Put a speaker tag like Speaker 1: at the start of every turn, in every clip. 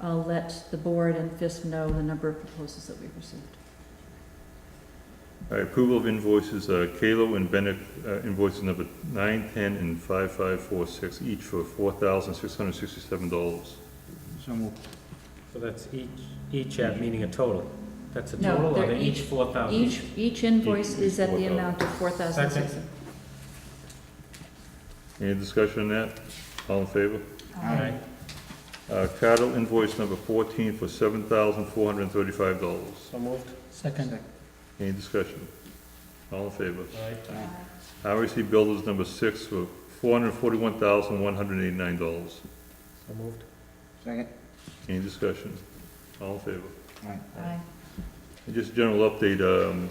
Speaker 1: I'll let the board and FISP know the number of proposals that we've received.
Speaker 2: All right, approval of invoices, uh, Kalo and Bennett uh, invoices number nine, ten, and five, five, four, six, each for four thousand, six hundred sixty-seven dollars.
Speaker 3: So moved.
Speaker 4: So that's each, each at, meaning a total. That's a
Speaker 1: No,
Speaker 4: total, or
Speaker 1: they're
Speaker 4: they're each
Speaker 1: each-
Speaker 4: four thousand?
Speaker 1: Each, each invoice
Speaker 2: Each
Speaker 1: is
Speaker 2: is
Speaker 1: at the
Speaker 2: 4,000.
Speaker 1: amount of four thousand six.
Speaker 2: Any discussion on that? All in favor?
Speaker 4: Aye.
Speaker 2: Uh, Cattle invoice number fourteen for seven thousand, four hundred and thirty-five dollars.
Speaker 4: So moved?
Speaker 3: Second.
Speaker 2: Any discussion? All in favor?
Speaker 4: Aye.
Speaker 2: RAC Builders number six for four hundred and forty-one thousand, one hundred and eighty-nine dollars.
Speaker 4: So moved?
Speaker 3: Second.
Speaker 2: Any discussion? All in favor?
Speaker 3: Aye.
Speaker 1: Aye.
Speaker 2: And Just a general update, um,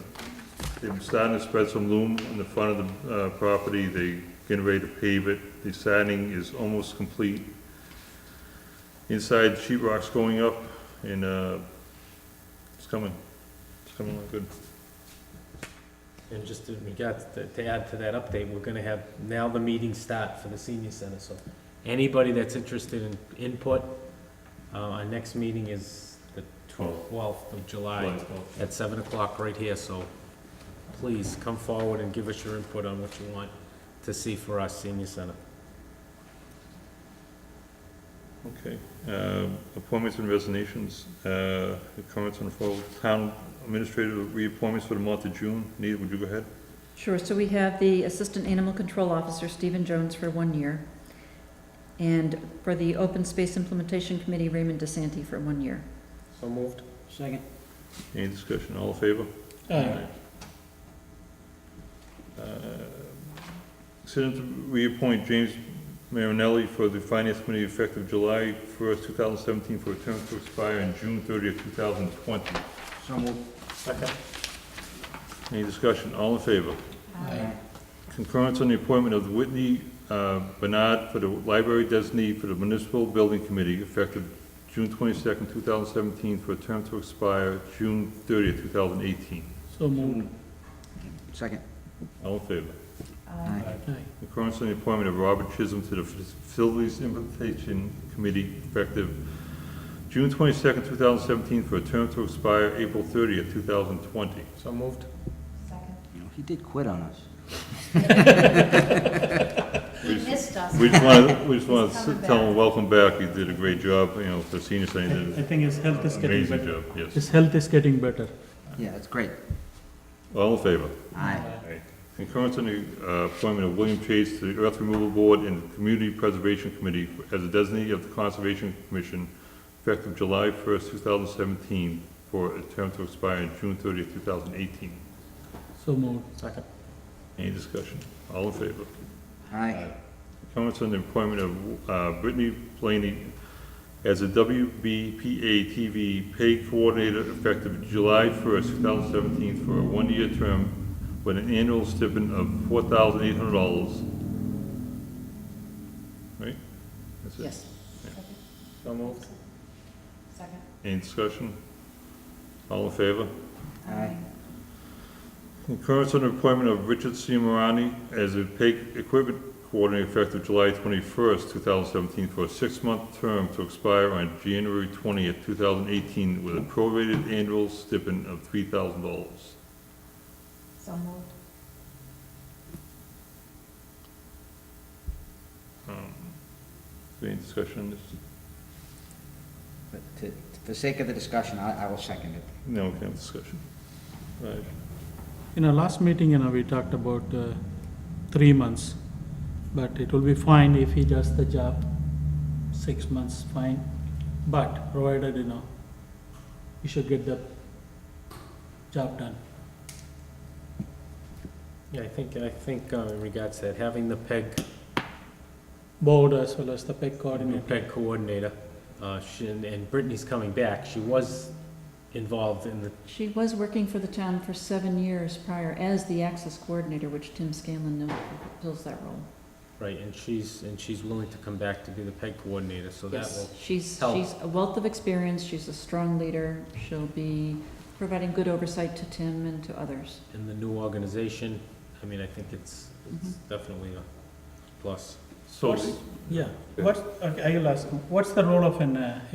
Speaker 2: they're starting to spread some loom in the front of the, uh, property, they getting ready to pave it, the siding is almost complete. Inside, sheet rock's going up, and, uh, it's coming, it's coming along good.
Speaker 4: And just in regards, to to add to that update, we're gonna have, now the meetings start for the senior center, so anybody that's interested in input, uh, our next meeting is the twelfth of July at seven o'clock right here, so please come forward and give us your input on what you want to see for our senior center.
Speaker 2: Okay, uh, appointments and resignations, uh, comments on full town administrator reappointments for the month of June, Nita, would you go ahead?
Speaker 1: Sure, so we have the Assistant Animal Control Officer, Stephen Jones, for one year. And for the Open Space Implementation Committee, Raymond DeSanti, for one year.
Speaker 4: So moved?
Speaker 3: Second.
Speaker 2: Any discussion, all in favor? Uh, Consider to reappoint James Marinelli for the Finance Committee effective July first, two thousand seventeen, for a term to expire on June thirtieth, two thousand twenty.
Speaker 3: So moved.
Speaker 4: Second?
Speaker 2: Any discussion? All in favor?
Speaker 3: Aye.
Speaker 2: Concurrence on the appointment of Whitney uh, Bernard for the Library Designee for the Municipal Building Committee effective June twenty-second, two thousand seventeen, for a term to expire June thirtieth, two thousand eighteen.
Speaker 3: So moved. Second.
Speaker 2: All in favor?
Speaker 3: Aye.
Speaker 2: Concurrence on the appointment of Robert Chisholm to the Facilities Implementation Committee effective June twenty-second, two thousand seventeen, for a term to expire April thirtieth, two thousand twenty.
Speaker 4: So moved?
Speaker 3: You know, he did quit on us.
Speaker 2: He
Speaker 1: missed us.
Speaker 2: We just want, we just want
Speaker 1: He's
Speaker 2: to
Speaker 1: coming
Speaker 2: tell
Speaker 1: back.
Speaker 2: him, welcome back, you did a great job, you know, for senior center, you
Speaker 5: I
Speaker 2: did
Speaker 5: think his health is
Speaker 2: an
Speaker 5: getting
Speaker 2: amazing
Speaker 5: better.
Speaker 2: job, yes.
Speaker 5: His health is getting better.
Speaker 3: Yeah, that's great.
Speaker 2: All in favor?
Speaker 3: Aye.
Speaker 2: Concurrence on the uh, appointment of William Chase to the Earth Removal Board and the Community Preservation Committee as a designee of the Conservation Commission effective July first, two thousand seventeen, for a term to expire on June thirtieth, two thousand eighteen.
Speaker 5: So moved.
Speaker 4: Second?
Speaker 2: Any discussion? All in favor?
Speaker 3: Aye.
Speaker 2: Comments on the appointment of uh, Brittany Blaney as a WBPA TV pay coordinator effective July 1st, 2017, for a one-year term with an annual stipend of $4,800. Right? That's it.
Speaker 1: Yes.
Speaker 4: So moved?
Speaker 1: Second.
Speaker 2: Any discussion? All in favor?
Speaker 3: Aye.
Speaker 2: Concurrence on the appointment of Richard C. Marani as a pay equipment coordinator effective July twenty-first, two thousand seventeen, for a six-month term to expire on January twentieth, two thousand eighteen, with a prorated annual stipend of three thousand dollars.
Speaker 1: So moved.
Speaker 2: Any discussion on this?
Speaker 3: But to, for sake of the discussion, I, I will second it.
Speaker 2: No, we can have discussion. Right.
Speaker 5: In our last meeting, you know, we talked about uh, three months, but it will be fine if he does the job, six months, fine. But provided, you know, he should get the job done.
Speaker 4: Yeah, I think, I think uh, in regards to that, having the E PEG
Speaker 5: Board as well as the PEG
Speaker 4: New
Speaker 5: coordinator.
Speaker 4: PEG E coordinator, uh, she, and Brittany's coming back, she was involved in the,
Speaker 1: She was working for the town for seven years prior as the access coordinator, which Tim Scanlon now fills that role.
Speaker 4: right, and she's, and she's willing to come back to be the PEG coordinator, so that
Speaker 1: Yes,
Speaker 4: will,
Speaker 1: she's,
Speaker 4: help.
Speaker 1: she's a wealth of experience, she's a strong leader, she'll be providing good oversight to Tim and to others.
Speaker 4: in the new organization, I mean, I think it's, it's definitely a plus.
Speaker 2: So,
Speaker 5: Yeah, what, okay, I will ask, him. what's the role of an uh,